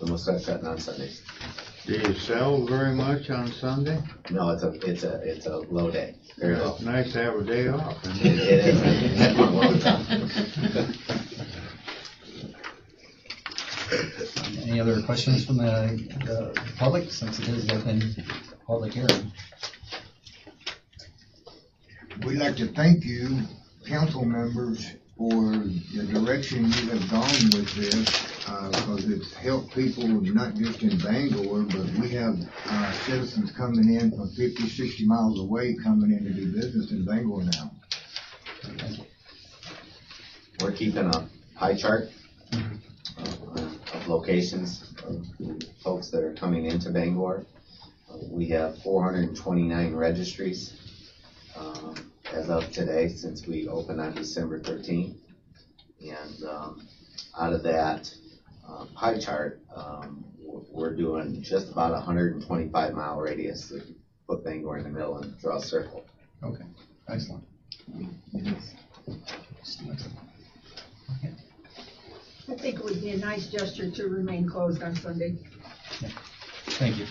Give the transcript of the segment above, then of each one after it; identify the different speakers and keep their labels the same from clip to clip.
Speaker 1: Then what's that shutting on Sundays?
Speaker 2: Do you sell very much on Sunday?
Speaker 1: No, it's a, it's a, it's a low day, very low.
Speaker 2: It's Nice to have a day off.
Speaker 1: It is, that's one low time.
Speaker 3: Any other questions from the, the public, since it is open public hearing?
Speaker 4: We'd like to thank you, council members, for the direction you have gone with this, uh, because it's helped people not just in Bangor, but we have, uh, citizens coming in from 50, 60 miles away coming in to do business in Bangor now.
Speaker 1: We're keeping a pie chart of of locations of folks that are coming into Bangor. We have four hundred and twenty-nine registries, um, as of today, since we opened on December thirteenth. And, um, out of that, uh, pie chart, um, we're, we're doing just about a hundred and twenty-five mile radius. to Put Bangor in the middle and draw a circle.
Speaker 3: Okay, excellent.
Speaker 5: I think it would be a nice gesture to remain closed on Sunday.
Speaker 3: Thank you.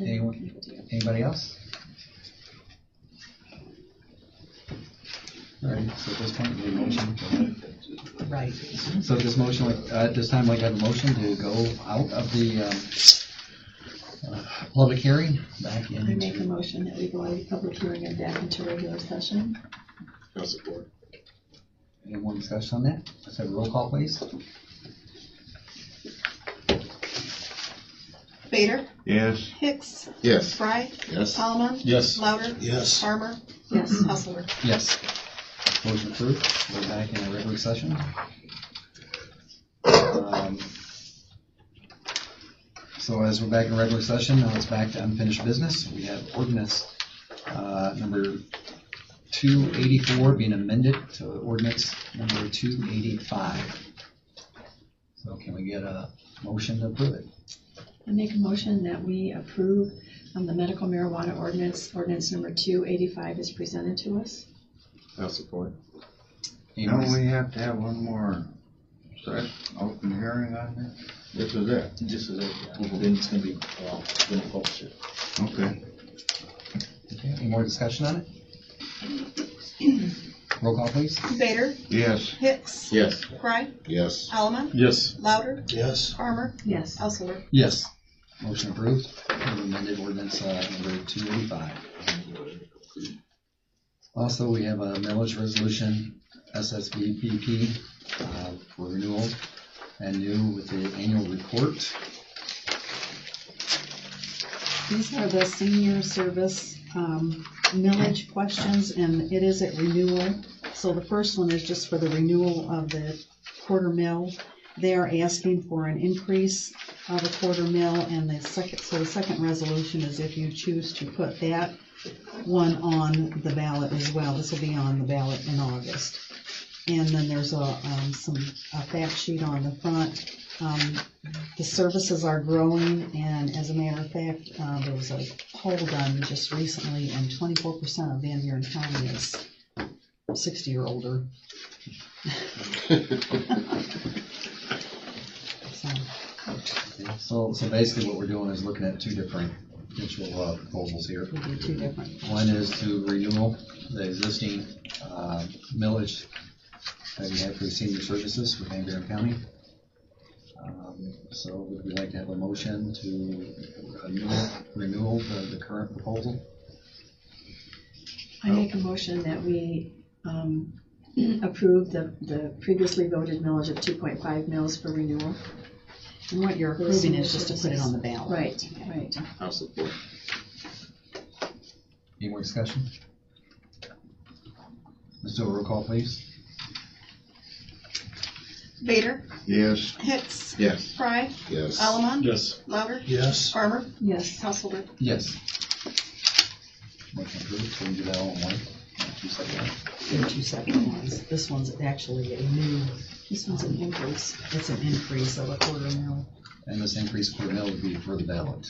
Speaker 3: Anyone, anybody else? All right, so at this point, we need a motion.
Speaker 6: Right.
Speaker 3: So at this motion, like, uh, at this time, I'd like to have a motion to go out of the, um, uh, public hearing, back
Speaker 6: I make a
Speaker 3: into,
Speaker 6: motion that we go out of public hearing and back into regular session.
Speaker 3: any more discussion on that? Let's have a roll call, please.
Speaker 7: Vader,
Speaker 2: Yes,
Speaker 7: Hicks,
Speaker 4: Yes.
Speaker 7: Fry,
Speaker 4: Yes.
Speaker 7: Alman,
Speaker 3: Yes.
Speaker 7: Louder,
Speaker 8: Yes.
Speaker 7: Farmer, Mm-hmm.
Speaker 6: Yes.
Speaker 7: Hustler.
Speaker 3: Yes. Motion approved. We're back in a regular session. Um, So as we're back in regular session, now it's back to unfinished business. We have ordinance uh, number 284 being amended to ordinance number 285. So can we get a motion to approve it?
Speaker 6: I make a motion that we approve um, the medical marijuana ordinance, ordinance number two eighty-five is presented to us.
Speaker 3: Any more-
Speaker 2: don't we have to have one more session, open hearing on this? This is it,
Speaker 8: This is it, yeah. then it's gonna be, uh, gonna focus it.
Speaker 2: okay.
Speaker 3: okay, Any more discussion on it? Roll call, please.
Speaker 7: Vader,
Speaker 2: Yes,
Speaker 7: Hicks,
Speaker 8: Yes.
Speaker 7: Fry,
Speaker 4: Yes.
Speaker 7: Alman,
Speaker 8: Yes.
Speaker 7: Louder,
Speaker 8: Yes.
Speaker 7: Farmer,
Speaker 6: Yes.
Speaker 7: Hustler.
Speaker 3: Yes. Motion approved. We've Amended ordinance uh, number 285. Also, we have a millage resolution, SSVPP, uh, for renewal and new with the annual report.
Speaker 9: These are the senior service um, millage questions, and it is at renewal. So the first one is just for the renewal of the quarter mill. They are asking for an increase of a quarter mill, and the second, so the second resolution is if you choose to put that one on the ballot as well. This will be on the ballot in August. And then there's a, um, some, a fact sheet on the front. Um, the services are growing, and as a matter of fact, uh, there was a poll done just recently, and twenty-four percent of Van Buren County is sixty or older. So,
Speaker 3: So, so basically what we're doing is looking at two different potential uh, proposals here.
Speaker 9: we do two different.
Speaker 3: One is to renewal the existing uh, millage that we have for senior services for Van Buren County. Um, So would we like to have a motion to renew- renewal the the current proposal?
Speaker 6: I make a motion that we um, approve the, the previously voted millage of two point five mils for renewal.
Speaker 9: And what you're approving is just to put it on the ballot.
Speaker 6: Right, right.
Speaker 8: I'll support.
Speaker 3: Any more discussion? Let's do a roll call, please.
Speaker 7: Vader,
Speaker 2: yes,
Speaker 7: Hicks,
Speaker 4: Yes.
Speaker 7: Fry,
Speaker 4: Yes.
Speaker 7: Alman,
Speaker 8: Yes.
Speaker 7: Louder,
Speaker 8: Yes.
Speaker 7: Farmer,
Speaker 6: Yes.
Speaker 7: Hustler.
Speaker 3: Yes. Motion approved, so we do that all in one. Two seconds.
Speaker 9: They're two separate ones. This one's actually a new,
Speaker 6: This one's an increase.
Speaker 9: it's an increase of a quarter mil.
Speaker 3: And this increase per mill would be for the ballot.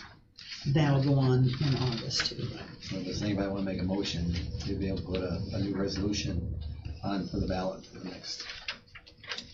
Speaker 9: That'll go on in August too.
Speaker 3: So Does anybody want to make a motion to be able to put a, a new resolution on for the ballot for the next